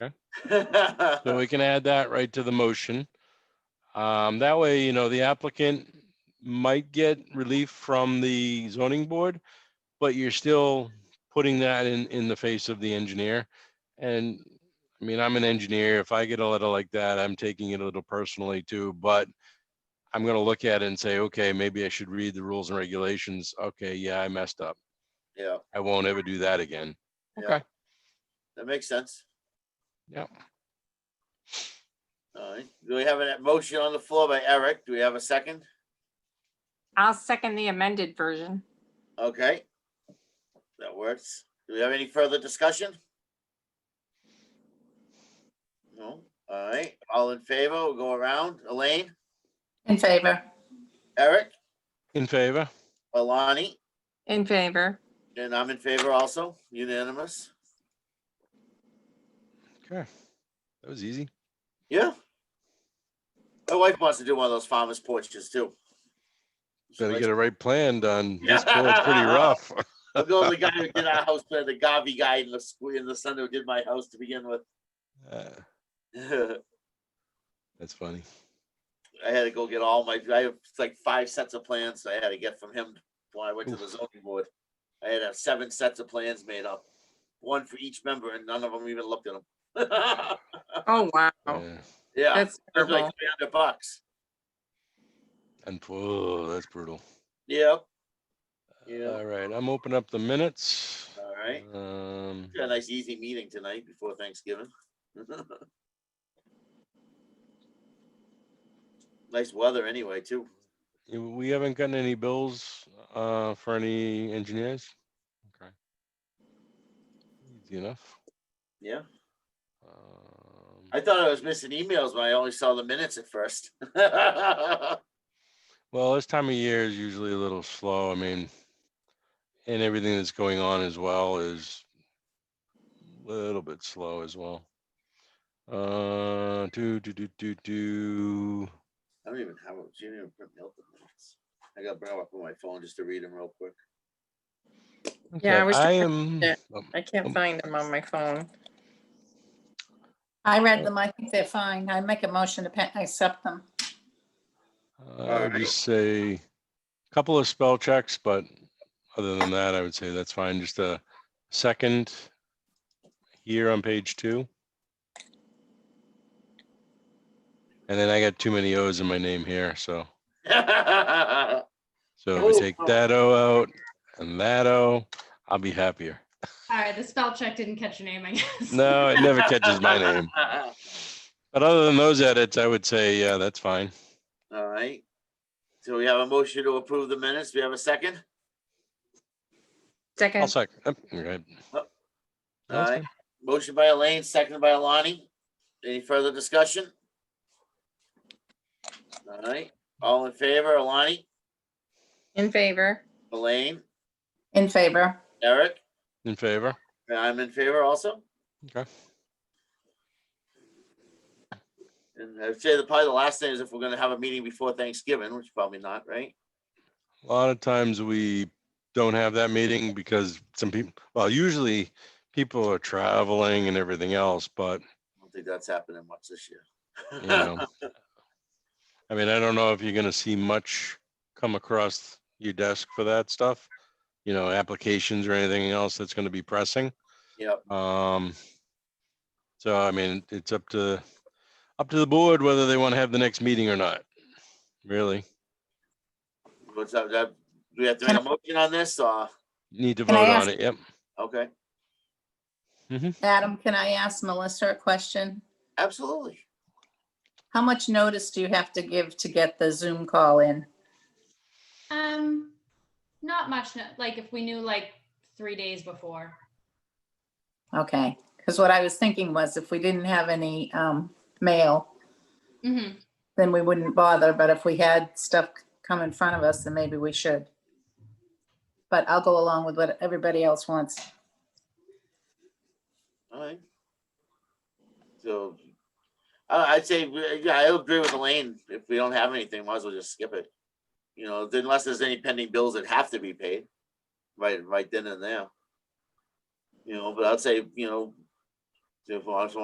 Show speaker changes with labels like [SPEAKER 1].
[SPEAKER 1] So we can add that right to the motion. Um, that way, you know, the applicant might get relief from the zoning board, but you're still putting that in, in the face of the engineer. And, I mean, I'm an engineer. If I get a letter like that, I'm taking it a little personally too, but I'm gonna look at it and say, okay, maybe I should read the rules and regulations. Okay, yeah, I messed up.
[SPEAKER 2] Yeah,
[SPEAKER 1] I won't ever do that again.
[SPEAKER 2] Yeah.
[SPEAKER 1] Okay,
[SPEAKER 2] that makes sense.
[SPEAKER 1] Yep.
[SPEAKER 2] All right, do we have a motion on the floor by Eric? Do we have a second?
[SPEAKER 3] I'll second the amended version.
[SPEAKER 2] Okay. That works. Do we have any further discussion? No, all right, all in favor, we'll go around. Elaine,
[SPEAKER 4] In favor.
[SPEAKER 2] Eric,
[SPEAKER 1] in favor?
[SPEAKER 2] Alani,
[SPEAKER 3] In favor.
[SPEAKER 2] and I'm in favor also, unanimous.
[SPEAKER 1] Okay. That was easy.
[SPEAKER 2] Yeah. My wife wants to do one of those farmer's porches too. She
[SPEAKER 1] Better
[SPEAKER 2] likes
[SPEAKER 1] get it right planned on, this board's pretty rough.
[SPEAKER 2] I'll go with the guy who did our house, plan, the Gavi guy in the school, in the son who did my house to begin with.
[SPEAKER 1] Uh,
[SPEAKER 2] I
[SPEAKER 1] That's funny.
[SPEAKER 2] had to go get all my, I have like five sets of plans I had to get from him when I went to the zoning board. I had to have seven sets of plans made up, one for each member, and none of them even looked at them.
[SPEAKER 3] Oh, wow.
[SPEAKER 1] Yeah.
[SPEAKER 2] Yeah,
[SPEAKER 3] That's
[SPEAKER 2] it was like
[SPEAKER 3] terrible.
[SPEAKER 2] three hundred bucks.
[SPEAKER 1] And, oh, that's brutal.
[SPEAKER 2] Yep. Yeah,
[SPEAKER 1] All right, I'm opening up the minutes.
[SPEAKER 2] all right.
[SPEAKER 1] Um,
[SPEAKER 2] Got a nice easy meeting tonight before Thanksgiving. Nice weather anyway, too.
[SPEAKER 1] y- we haven't gotten any bills, uh, for any engineers. Okay. Easy enough.
[SPEAKER 2] Yeah.
[SPEAKER 1] Um,
[SPEAKER 2] I thought I was missing emails when I only saw the minutes at first. yeah,
[SPEAKER 1] Well, this time of year is usually a little slow. I mean, and everything that's going on as well is a little bit slow as well. Uh, do, do, do, do, do.
[SPEAKER 2] I don't even have a do you even print out the minutes. I got to bring them up on my phone just to read them real quick.
[SPEAKER 3] Yeah, I
[SPEAKER 1] Okay,
[SPEAKER 3] was
[SPEAKER 1] I am,
[SPEAKER 3] it.
[SPEAKER 1] oh,
[SPEAKER 3] I can't find them on my phone.
[SPEAKER 4] I read them. I think they're fine. I make a motion to pa- accept them.
[SPEAKER 1] Uh, I would just say a couple of spell checks, but other than that, I would say that's fine. Just a second here on page two. And then I got too many O's in my name here, so, so if we
[SPEAKER 2] Oh.
[SPEAKER 1] take that O out and that O, I'll be happier.
[SPEAKER 5] All right, the spell check didn't catch your name, I guess.
[SPEAKER 1] No, it never catches my name. But other than those edits, I would say, yeah, that's fine.
[SPEAKER 2] All right. So we have a motion to approve the minutes. Do we have a second?
[SPEAKER 1] I'll
[SPEAKER 3] Second,
[SPEAKER 1] sec. oh, you're right.
[SPEAKER 2] Oh.
[SPEAKER 1] No, it's
[SPEAKER 2] Aye.
[SPEAKER 1] fine.
[SPEAKER 2] Motion by Elaine, seconded by Alani. Any further discussion? All right. All in favor, Alani,
[SPEAKER 3] in favor.
[SPEAKER 2] Elaine,
[SPEAKER 4] In favor.
[SPEAKER 2] Eric?
[SPEAKER 1] In favor?
[SPEAKER 2] And I'm in favor also.
[SPEAKER 1] Okay.
[SPEAKER 2] And I'd say the, probably the last thing is if we're gonna have a meeting before Thanksgiving, which probably not, right?
[SPEAKER 1] A lot of times we don't have that meeting because some people, well, usually people are traveling and everything else, but
[SPEAKER 2] I don't think that's happening much this
[SPEAKER 1] you
[SPEAKER 2] year.
[SPEAKER 1] know. I mean, I don't know if you're gonna see much come across your desk for that stuff. You know, applications or anything else that's gonna be pressing.
[SPEAKER 2] Yep,
[SPEAKER 1] Um, so I mean, it's up to, up to the board whether they want to have the next meeting or not, really.
[SPEAKER 2] what's up, that, do we have to make a motion on this, or,
[SPEAKER 1] Need to
[SPEAKER 4] Can I
[SPEAKER 1] vote on
[SPEAKER 4] ask-
[SPEAKER 1] it, yep.
[SPEAKER 2] okay,
[SPEAKER 4] Adam, can I ask Melissa a question?
[SPEAKER 2] absolutely.
[SPEAKER 4] How much notice do you have to give to get the Zoom call in?
[SPEAKER 5] Um, not much, no- like if we knew like three days before.
[SPEAKER 4] Okay, because what I was thinking was if we didn't have any um, mail,
[SPEAKER 5] Mhm.
[SPEAKER 4] then we wouldn't bother, but if we had stuff come in front of us, then maybe we should. But I'll go along with what everybody else wants.
[SPEAKER 2] Alright. So, I, I'd say, we- yeah, I agree with Elaine, if we don't have anything, might as well just skip it. You know, unless there's any pending bills that have to be paid, right, right then and there. You know, but I'd say, you know, if I just